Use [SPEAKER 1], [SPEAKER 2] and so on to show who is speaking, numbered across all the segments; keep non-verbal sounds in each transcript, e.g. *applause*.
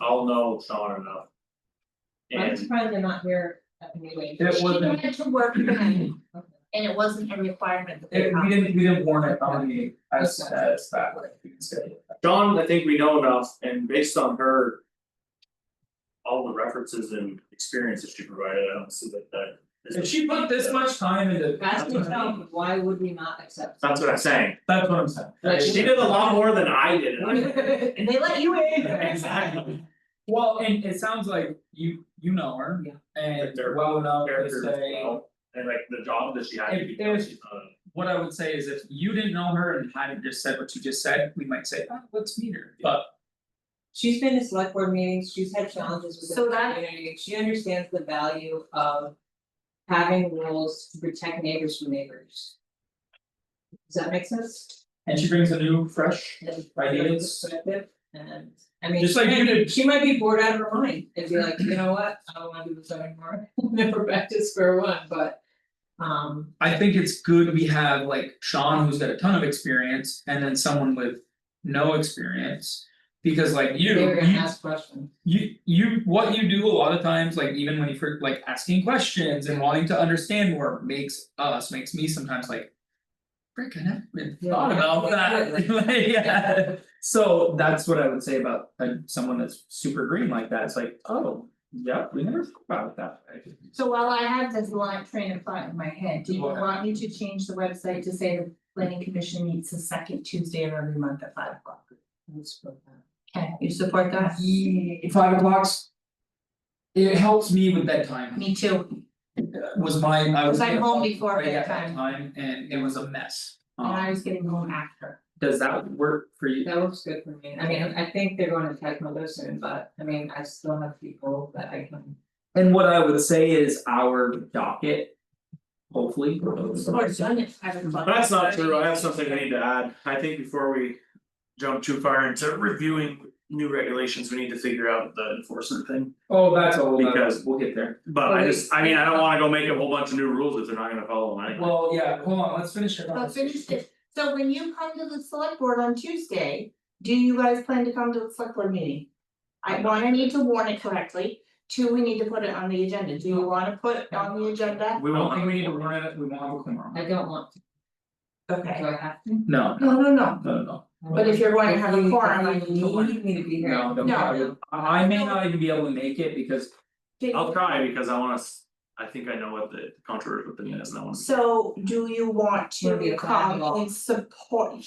[SPEAKER 1] I'll know it's not enough.
[SPEAKER 2] I'm
[SPEAKER 1] And
[SPEAKER 2] surprised they're not here at the meeting.
[SPEAKER 3] It wasn't,
[SPEAKER 4] She wanted to work tonight,
[SPEAKER 2] Okay.
[SPEAKER 4] and it wasn't a requirement that they
[SPEAKER 3] it, we
[SPEAKER 4] come.
[SPEAKER 3] didn't, we didn't warn it on the, as as that way, we can schedule it.
[SPEAKER 1] Dawn, I think we know enough and based on her. All the references and experiences she provided, I don't see that that. is-
[SPEAKER 3] If she put this much time into,
[SPEAKER 2] Ask
[SPEAKER 3] that's what I'm,
[SPEAKER 2] yourself, why would we not
[SPEAKER 3] *laughs*
[SPEAKER 2] accept?
[SPEAKER 1] That's what I'm saying,
[SPEAKER 3] that's what I'm saying.
[SPEAKER 2] Like,
[SPEAKER 1] she did a lot more than I did, and
[SPEAKER 3] *laughs*
[SPEAKER 1] I-
[SPEAKER 2] And they let you in.
[SPEAKER 1] Exactly.
[SPEAKER 3] Well, and it sounds like you, you know her.
[SPEAKER 2] Yeah.
[SPEAKER 3] And
[SPEAKER 1] They're
[SPEAKER 3] well enough
[SPEAKER 1] character
[SPEAKER 3] to
[SPEAKER 1] as
[SPEAKER 3] say,
[SPEAKER 1] well, and like the job that she had to
[SPEAKER 3] If
[SPEAKER 1] be doing, Uh,
[SPEAKER 3] there's-
[SPEAKER 1] she's not. a-
[SPEAKER 3] what I would say is if you didn't know her and hadn't just said what you just said, we might say, oh, let's meet her, but.
[SPEAKER 2] She's been to select board meetings, she's had challenges with
[SPEAKER 4] So
[SPEAKER 2] the
[SPEAKER 4] that-
[SPEAKER 2] community, she understands the value of. Having rules to protect neighbors from neighbors. Does that make sense?
[SPEAKER 3] And she brings a new, fresh ideas.
[SPEAKER 2] Perspective, and, I mean,
[SPEAKER 3] Just
[SPEAKER 2] she
[SPEAKER 3] like you
[SPEAKER 2] might be,
[SPEAKER 3] did.
[SPEAKER 2] she might be bored out of her mind, and be like, you know what, I don't wanna do this anymore, *laughs* never back to square one, but. Um,
[SPEAKER 3] I think it's good we have like Sean, who's got a ton of experience, and then someone with no experience. Because like you,
[SPEAKER 2] they're gonna
[SPEAKER 3] you
[SPEAKER 2] ask questions,
[SPEAKER 3] you you what you do a lot of times, like even when you for like asking questions and wanting to understand more makes us, makes me sometimes like. Frick, I never even
[SPEAKER 2] Yeah.
[SPEAKER 3] thought *laughs* about that, Like, yeah. so that's what I would say about uh someone that's super green like that, it's like, oh, yeah, we never thought about it that way.
[SPEAKER 4] So while I have this line train of thought in my head, do you
[SPEAKER 3] Go ahead.
[SPEAKER 4] want me to change the website to say the planning commission meets the second Tuesday of every month at five o'clock?
[SPEAKER 2] let's put that.
[SPEAKER 4] Okay, you support that?
[SPEAKER 3] Ye- five o'clock's. It helps me with bedtime,
[SPEAKER 4] Me too,
[SPEAKER 3] was my, I was.
[SPEAKER 4] Was I home before
[SPEAKER 3] right at
[SPEAKER 4] bedtime?
[SPEAKER 3] Time and it was a mess,
[SPEAKER 4] and I
[SPEAKER 3] um,
[SPEAKER 4] was getting home after.
[SPEAKER 3] does that work for you?
[SPEAKER 2] That looks good for me, I mean, I think they're going to Tecmo soon, but I mean, I still have people that I can.
[SPEAKER 3] And what I would say is our docket. Hopefully.
[SPEAKER 4] Or done at five o'clock.
[SPEAKER 1] That's not true, I have something I need to add, I think before we jump too far into reviewing new regulations, we need to figure out the enforcement thing.
[SPEAKER 3] Oh, that's all,
[SPEAKER 1] Because-
[SPEAKER 3] we'll get there.
[SPEAKER 1] But I just, I mean, I don't wanna go make a whole bunch of new rules if they're not gonna follow them anyway.
[SPEAKER 3] Well, yeah, hold on, let's finish it.
[SPEAKER 4] But finish it, so when you come to the select board on Tuesday, do you guys plan to come to the select board meeting? I one, I need to warn it correctly, two, we need to put it on the agenda, do you wanna put it on the agenda?
[SPEAKER 1] We
[SPEAKER 3] I don't
[SPEAKER 1] won't,
[SPEAKER 3] think we need to warn it, we won't have a quorum.
[SPEAKER 2] I don't want to,
[SPEAKER 4] Okay.
[SPEAKER 2] do I have to?
[SPEAKER 3] No,
[SPEAKER 4] No, no, no,
[SPEAKER 3] no, no,
[SPEAKER 4] but if you're going to have a
[SPEAKER 2] If you-
[SPEAKER 4] forum, I
[SPEAKER 2] if you
[SPEAKER 4] need to warn.
[SPEAKER 2] Need me to be here.
[SPEAKER 3] no, don't
[SPEAKER 4] No.
[SPEAKER 3] worry. I I may not even be able to make it because
[SPEAKER 1] I'll try because I wanna, s- I think I know what the controversial thing is and I wanna.
[SPEAKER 4] So do you want
[SPEAKER 2] Wanna be
[SPEAKER 4] to
[SPEAKER 2] a
[SPEAKER 4] come
[SPEAKER 2] flag.
[SPEAKER 4] and support?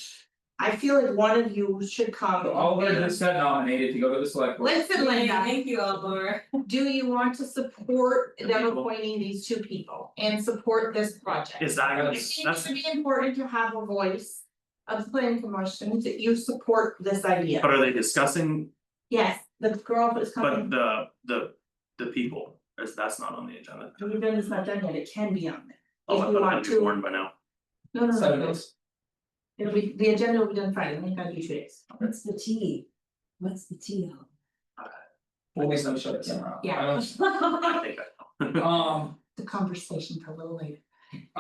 [SPEAKER 4] I feel like one of you should come.
[SPEAKER 3] So all of
[SPEAKER 4] and-
[SPEAKER 3] us got nominated to go to the select board.
[SPEAKER 4] Listen, Linda,
[SPEAKER 2] Thank you, Albor.
[SPEAKER 4] do you want to support
[SPEAKER 1] The
[SPEAKER 4] them
[SPEAKER 1] people.
[SPEAKER 4] appointing these two people and support this project?
[SPEAKER 1] Is that
[SPEAKER 4] I
[SPEAKER 1] gonna,
[SPEAKER 4] think it
[SPEAKER 1] that's,
[SPEAKER 4] should be important to have a voice of the planning commission that you support this idea.
[SPEAKER 1] but are they discussing,
[SPEAKER 4] Yes, the girl who's
[SPEAKER 1] but
[SPEAKER 4] coming,
[SPEAKER 1] the the the people, is that's not on the agenda.
[SPEAKER 4] the event is not done yet, it can be on there.
[SPEAKER 1] Oh,
[SPEAKER 4] If
[SPEAKER 1] I
[SPEAKER 4] you
[SPEAKER 1] thought
[SPEAKER 4] want
[SPEAKER 1] I'd be
[SPEAKER 4] to-
[SPEAKER 1] warned by now,
[SPEAKER 4] No, no, no,
[SPEAKER 3] Seven
[SPEAKER 4] no,
[SPEAKER 3] days.
[SPEAKER 4] it'll be, the agenda will be done Friday, we have two days.
[SPEAKER 5] What's the T? What's the T on?
[SPEAKER 3] Always some shut camera off.
[SPEAKER 4] Yeah.
[SPEAKER 3] I don't-
[SPEAKER 4] *laughs*
[SPEAKER 1] I think I
[SPEAKER 3] Um,
[SPEAKER 4] The conversation for a little later.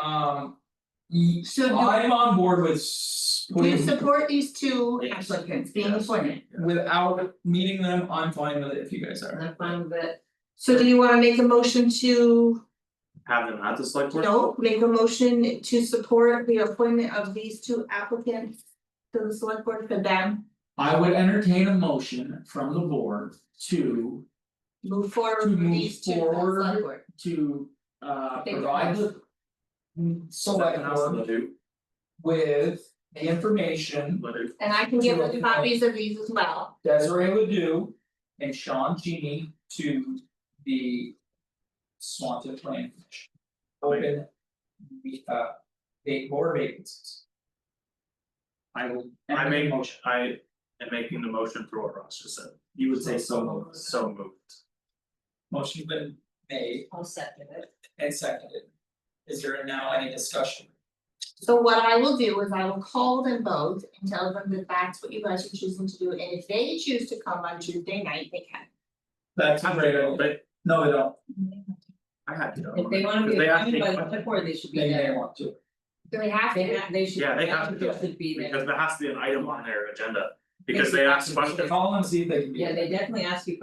[SPEAKER 3] um. ye-
[SPEAKER 4] So do-
[SPEAKER 3] I'm on board with s-
[SPEAKER 4] Do
[SPEAKER 3] putting
[SPEAKER 4] you support these two
[SPEAKER 1] Yes.
[SPEAKER 4] applicants being
[SPEAKER 1] Yes.
[SPEAKER 4] appointed?
[SPEAKER 3] Without meeting them, I'm fine with it if you guys are.
[SPEAKER 2] I'm fine with it,
[SPEAKER 4] So do you wanna make a motion to,
[SPEAKER 1] have them at the select board.
[SPEAKER 4] no, make a motion to support the appointment of these two applicants? To the select board for them,
[SPEAKER 3] I would entertain a motion from the board to
[SPEAKER 4] move forward
[SPEAKER 3] To
[SPEAKER 4] with
[SPEAKER 3] move
[SPEAKER 4] these two to the select
[SPEAKER 3] forward.
[SPEAKER 4] board.
[SPEAKER 3] to uh
[SPEAKER 4] They-
[SPEAKER 3] provide the. Select
[SPEAKER 1] Nothing else to
[SPEAKER 3] board
[SPEAKER 1] do,
[SPEAKER 3] with the information
[SPEAKER 1] but if-
[SPEAKER 4] And I can give them copies of these as well,
[SPEAKER 3] Desiree Ledoux and Sean Genie to the. Swanton Plan Commission. Open the uh eight more vacancies. I will.
[SPEAKER 1] I
[SPEAKER 3] entertain
[SPEAKER 1] make
[SPEAKER 3] a
[SPEAKER 1] motion, I am making the motion for what Ross just said, you would say so moved, so moved.
[SPEAKER 3] Motion been made
[SPEAKER 5] I'll second it.
[SPEAKER 3] and seconded. Is there now any discussion?
[SPEAKER 4] so what I will do is I will call them both and tell them that that's what you guys are choosing to do, and if they choose to come on Tuesday night, they can.
[SPEAKER 3] That's a great, idea.
[SPEAKER 1] They-
[SPEAKER 3] no, they don't,
[SPEAKER 1] I had to.
[SPEAKER 2] if they wanna be
[SPEAKER 1] They have to
[SPEAKER 2] appointed by
[SPEAKER 1] take-
[SPEAKER 2] the select board, they should be
[SPEAKER 3] they may
[SPEAKER 2] there,
[SPEAKER 3] want to.
[SPEAKER 4] Do they have
[SPEAKER 2] they
[SPEAKER 4] to?
[SPEAKER 2] ha- they should,
[SPEAKER 1] Yeah, they have to do
[SPEAKER 2] they
[SPEAKER 1] it,
[SPEAKER 2] should be there.
[SPEAKER 1] Because there has to be an item on their agenda, because they asked questions.
[SPEAKER 3] Call and see if they can be.
[SPEAKER 2] Yeah, they definitely ask you